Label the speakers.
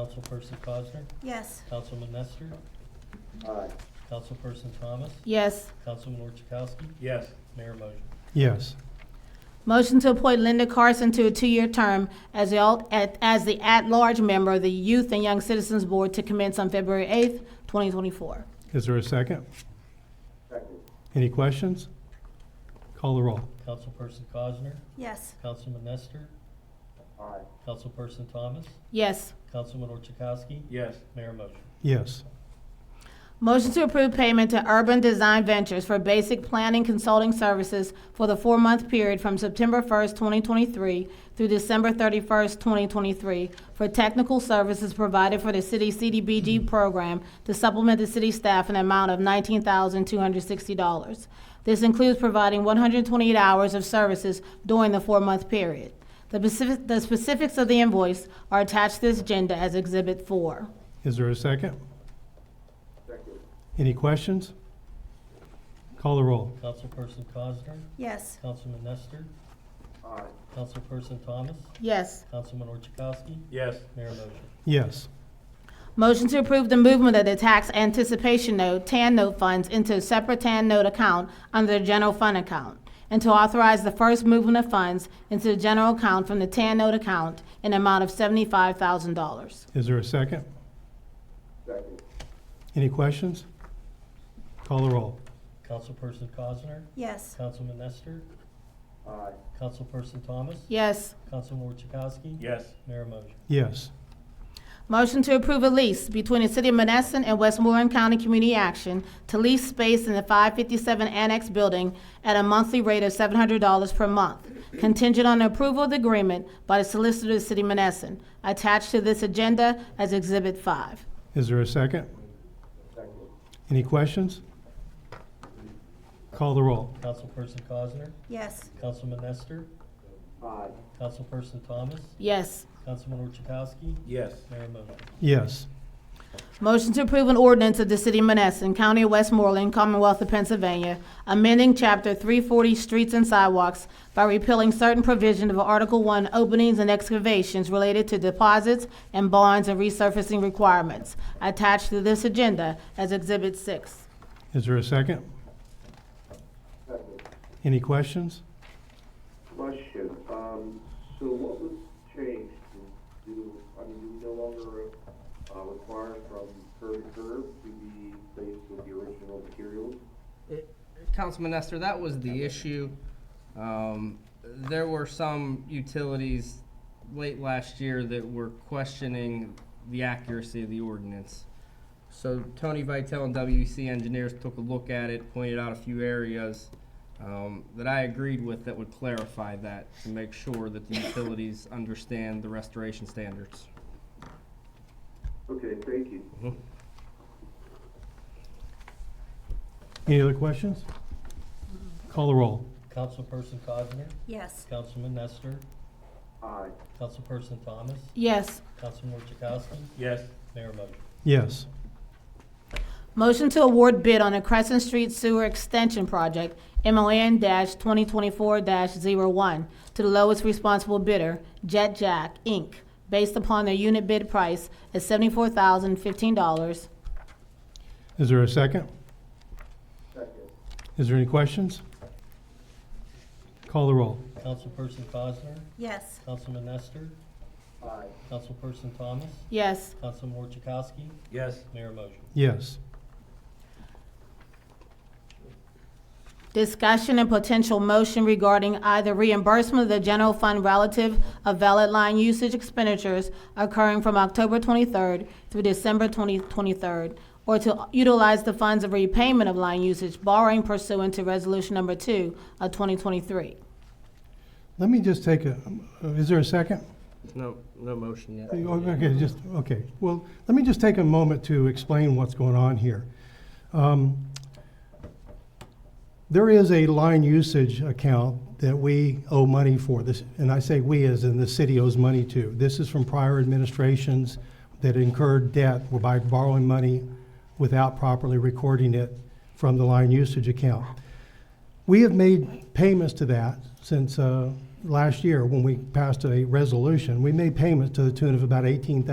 Speaker 1: Councilperson Cosner,
Speaker 2: Yes.
Speaker 1: Councilman Nestor,
Speaker 3: Aye.
Speaker 1: Councilperson Thomas,
Speaker 4: Yes.
Speaker 1: Councilman Orchakowski,
Speaker 5: Yes.
Speaker 1: Mayor motion.
Speaker 6: yes,
Speaker 4: Motion to appoint Linda Carson to a two-year term as the, al- at- as the at-large member of the Youth and Young Citizens Board to commence on February 8th, 2024.
Speaker 6: is there a second?
Speaker 3: Second.
Speaker 6: Any questions? Call the roll.
Speaker 1: Councilperson Cosner,
Speaker 2: Yes.
Speaker 1: Councilman Nestor,
Speaker 3: Aye.
Speaker 1: Councilperson Thomas,
Speaker 4: Yes.
Speaker 1: Councilman Orchakowski,
Speaker 5: Yes.
Speaker 1: Mayor motion.
Speaker 6: Yes,
Speaker 4: Motion to approve payment to Urban Design Ventures for basic planning consulting services for the four-month period from September 1st, 2023 through December 31st, 2023 for technical services provided for the city CDBG program to supplement the city staff in an amount of $19,260. This includes providing 128 hours of services during the four-month period. The specific- the specifics of the invoice are attached to this agenda as Exhibit 4.
Speaker 6: is there a second?
Speaker 3: Second.
Speaker 6: Any questions? Call the roll.
Speaker 1: Councilperson Cosner,
Speaker 2: Yes.
Speaker 1: Councilman Nestor,
Speaker 3: Aye.
Speaker 1: Councilperson Thomas,
Speaker 4: Yes.
Speaker 1: Councilman Orchakowski,
Speaker 5: Yes.
Speaker 1: Mayor motion.
Speaker 6: Yes,
Speaker 4: Motion to approve the movement of the tax anticipation note, TAN note funds into a separate TAN note account under the general fund account, and to authorize the first movement of funds into the general account from the TAN note account in an amount of seventy-five thousand dollars.
Speaker 6: is there a second?
Speaker 3: Second.
Speaker 6: Any questions? Call the roll.
Speaker 1: Councilperson Cosner,
Speaker 2: Yes.
Speaker 1: Councilman Nestor,
Speaker 3: Aye.
Speaker 1: Councilperson Thomas,
Speaker 4: Yes.
Speaker 1: Councilman Orchakowski,
Speaker 5: Yes.
Speaker 1: Mayor motion.
Speaker 6: Yes,
Speaker 4: Motion to approve a lease between the City of Menneson and Westmoreland County Community Action to lease space in the 557 Annex Building at a monthly rate of $700 per month, contingent on approval of the agreement by the Solicitor of the City of Menneson, attached to this agenda as Exhibit 5.
Speaker 6: is there a second?
Speaker 3: Second.
Speaker 6: Any questions? Call the roll.
Speaker 1: Councilperson Cosner,
Speaker 2: Yes.
Speaker 1: Councilman Nestor,
Speaker 3: Aye.
Speaker 1: Councilperson Thomas,
Speaker 4: Yes.
Speaker 1: Councilman Orchakowski,
Speaker 5: Yes.
Speaker 1: Mayor motion.
Speaker 6: Yes,
Speaker 4: Motion to approve an ordinance of the City of Menneson, County of Westmoreland, Commonwealth of Pennsylvania, amending Chapter 340 Streets and Sidewalks by repealing certain provision of Article 1 Openings and Excavations related to deposits and bonds and resurfacing requirements, attached to this agenda as Exhibit 6.
Speaker 6: is there a second?
Speaker 3: Second.
Speaker 6: Any questions?
Speaker 3: Question, um, so what was changed? Do, do- I mean, do we no longer, uh, require from curb to curb to be placed with the original materials?
Speaker 7: It- Councilman Nestor, that was the issue. Um, There were some utilities late last year that were questioning the accuracy of the ordinance. So Tony Vitale and WEC engineers took a look at it, pointed out a few areas um, that I agreed with that would clarify that to make sure that the utilities understand the restoration standards.
Speaker 3: Okay, thank you.
Speaker 6: Any other questions? Call the roll.
Speaker 1: Councilperson Cosner,
Speaker 2: Yes.
Speaker 1: Councilman Nestor,
Speaker 3: Aye.
Speaker 1: Councilperson Thomas,
Speaker 4: Yes.
Speaker 1: Councilman Orchakowski,
Speaker 5: Yes.
Speaker 1: Mayor motion.
Speaker 6: Yes,
Speaker 4: Motion to award bid on a Crescent Street Sewer Extension Project, MON twenty twenty-four one to the lowest responsible bidder, Jet Jack, Inc., based upon their unit bid price at seventy-four thousand fifteen dollars.
Speaker 6: is there a second?
Speaker 3: Second.
Speaker 6: Is there any questions? Call the roll.
Speaker 1: Councilperson Cosner,
Speaker 2: Yes.
Speaker 1: Councilman Nestor,
Speaker 3: Aye.
Speaker 1: Councilperson Thomas,
Speaker 4: Yes.
Speaker 1: Councilman Orchakowski,
Speaker 5: Yes.
Speaker 1: Mayor motion.
Speaker 6: Yes,
Speaker 4: Discussion and potential motion regarding either reimbursement of the general fund relative of valid line usage expenditures occurring from October 23rd through December 2023rd, or to utilize the funds of repayment of line usage borrowing pursuant to Resolution Number 2 of 2023.
Speaker 6: let me just take a, is there a second?
Speaker 7: No, no motion yet.
Speaker 6: Oh, Okay, just, okay. Well, let me just take a moment to explain what's going on here. Um, There is a line usage account that we owe money for this, and I say we as in the city owes money to. This is from prior administrations that incurred debt by borrowing money without properly recording it from the line usage account. We have made payments to that since uh, last year when we passed a resolution. We made payments to the tune of about $18,000.